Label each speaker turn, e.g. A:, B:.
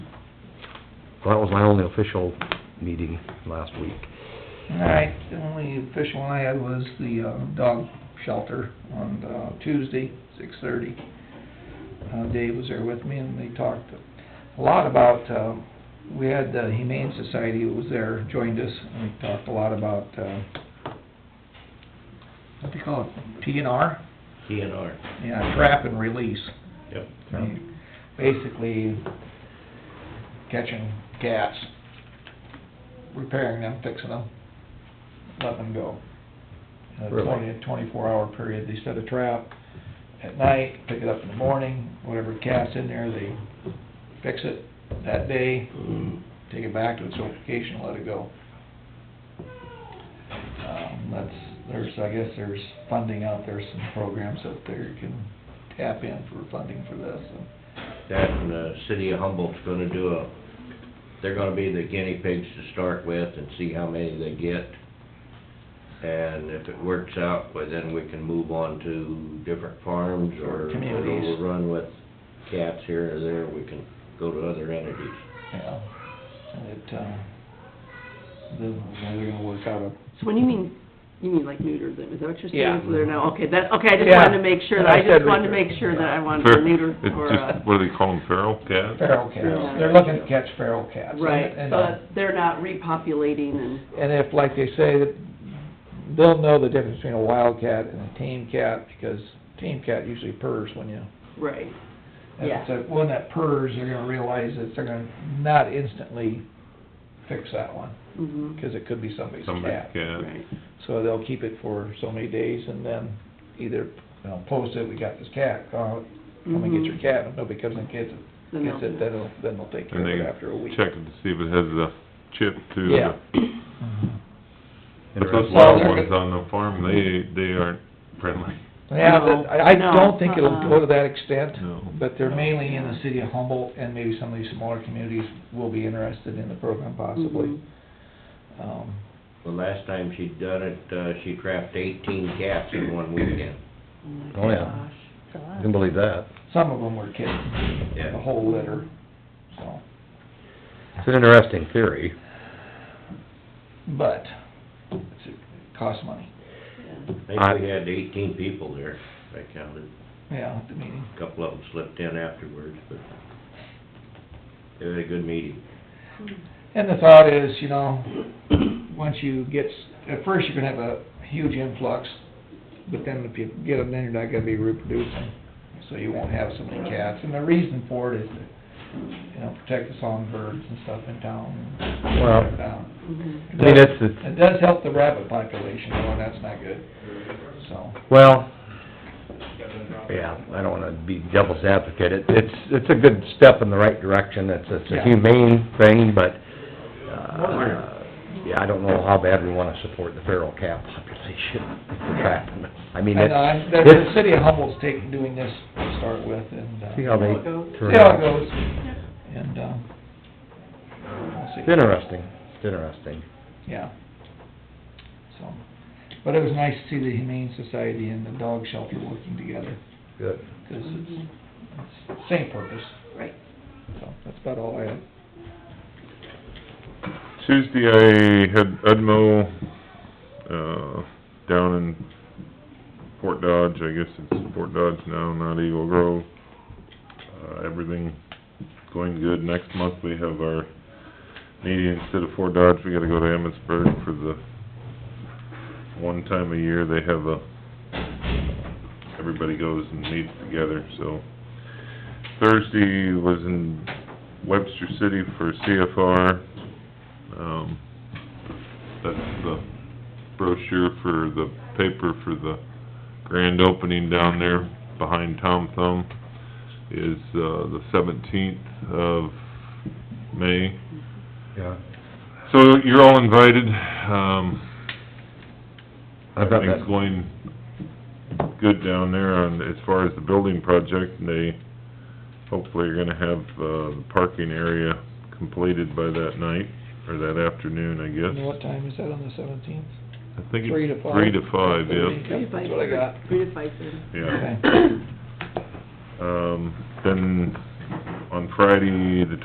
A: Well, that was my only official meeting last week.
B: All right, the only official one I had was the, uh, dog shelter on, uh, Tuesday, six thirty. Uh, Dave was there with me and they talked a lot about, uh, we had the Humane Society who was there, joined us, and we talked a lot about, uh, what do you call it, P and R?
C: DNR.
B: Yeah, trap and release.
C: Yep.
B: Basically catching cats, repairing them, fixing them, let them go. A
A: Really?
B: twenty, twenty-four hour period, they set a trap at night, pick it up in the morning, whatever cat's in there, they fix it that day,
C: Mm-hmm.
B: take it back to its location, and let it go. Um, that's, there's, I guess there's funding out there, some programs out there you can tap in for funding for this, and
C: That and the city of Humboldt's gonna do a, they're gonna be the guinea pigs to start with and see how many they get. And if it works out, well, then we can move on to different farms or if we're
B: Communities.
C: overrun with cats here or there, we can go to other entities.
B: Yeah, and it, uh, then they're gonna work out a.
D: So when you mean, you mean like neuter them, is that what you're
B: Yeah.
D: saying? So they're now, okay, that, okay, I just wanted to make sure, that I
B: Yeah, I said
D: just wanted to
B: neuter.
D: make sure that I wanted
E: Fair-
D: to neuter
E: it's
D: or,
E: just-
D: uh,
E: What do they call them, feral cats?
B: Feral cats,
D: Yeah.
B: they're looking to catch feral cats. and-
D: right,
B: and, uh,
D: but they're not repopulating and,
B: And if, like they say, that they'll know the difference between a wild cat and a tame cat, because tame cat usually purrs when you.
D: right,
B: and
D: Yeah.
B: So when that purrs, they're gonna realize that they're gonna not instantly fix that one,
D: mhm,
B: because it could be somebody's
E: Somebody's
B: cat.
E: cat.
D: right.
B: So they'll keep it for so many days and then either, you know, post it, we got this cat, uh, Come and get your
D: Mhm.
B: cat, if nobody comes and gets it,
D: Then
B: gets
D: they'll-
B: it, then it'll, then they'll take care
E: And
B: of
E: they
B: it after a week.
E: check it to see if it has the chip to
B: Yeah.
E: the,
D: Mm-hmm.
E: but those
A: Interesting.
E: wild
B: Well, they're-
E: ones on the farm, they, they aren't friendly,
B: Yeah, but I, I
D: No,
B: don't think it'll
D: uh-uh.
B: go to that extent,
E: no.
B: but they're mainly in the city of Humboldt, and maybe some of these smaller communities will be interested in the program possibly.
D: Mhm.
B: Um,
C: The last time she'd done it, uh, she trapped eighteen cats in one weekend.
D: Oh, my
A: Oh, yeah.
D: gosh.
A: I can believe that.
B: some of them were kittens,
C: Yeah.
B: the whole litter, so,
A: It's an interesting theory.
B: but it's, it costs money,
D: Yeah.
C: I think we had eighteen people there, I counted.
B: yeah, at the meeting.
C: A Couple of them slipped in afterwards, but they had a good meeting.
B: And the thought is, you know, once you get, at first you're gonna have a huge influx, but then if you get them, then you're not gonna be reproducing, so you won't have so many cats. And the reason for it is to, you know, protect the songbirds and stuff in town. and
A: Well-
B: shut it down.
D: Mhm.
A: I mean, that's the-
B: It does help the rabbit population, though, and that's not good, so.
A: Well, yeah, I don't wanna be devil's advocate. It, it's, it's a good step in the right direction. It's, it's a
B: Yeah.
A: humane thing, but,
B: Well, we're-
A: uh, yeah, I don't know how bad we wanna support the feral cat population for trapping them. I mean,
B: And, uh,
A: it's,
B: the, the
A: it's,
B: city of Humboldt's taking, doing this to start with, and, uh,
A: see
B: see
A: how they
D: How it goes.
A: turn
B: how it
A: out.
B: goes, and, um, we'll see.
A: It's interesting, it's interesting.
B: Yeah. So, but it was nice to see the Humane Society and the dog shelter working together,
A: Good.
B: because it's, it's same purpose,
D: Mm-hmm. Right.
B: so that's about all I had.
E: Tuesday, I had Edmo, uh, down in Fort Dodge, I guess it's Fort Dodge now, not Eagle Grove. Uh, everything going good. Next month, we have our meeting instead of Fort Dodge, we gotta go to Emmitsburg for the one time a year, they have a, everybody goes and meets together, so. Thursday was in Webster City for CFR, um, that's the brochure for the paper for the grand opening down there behind Tom Thumb is, uh, the seventeenth of May.
A: Yeah.
E: So you're all invited, um,
A: I've got that.
E: everything's going good down there on, as far as the building project, and they hopefully are gonna have, uh, the parking area completed by that night, or that afternoon, I
B: And
E: guess.
B: what time is that on the seventeenth?
E: I think
B: Three to
E: it's
B: five?
E: three to five,
B: Three
E: yeah,
B: to five. That's what I got.
D: Three to five thirty.
E: yeah.
B: Okay.
E: Um, then on Friday, the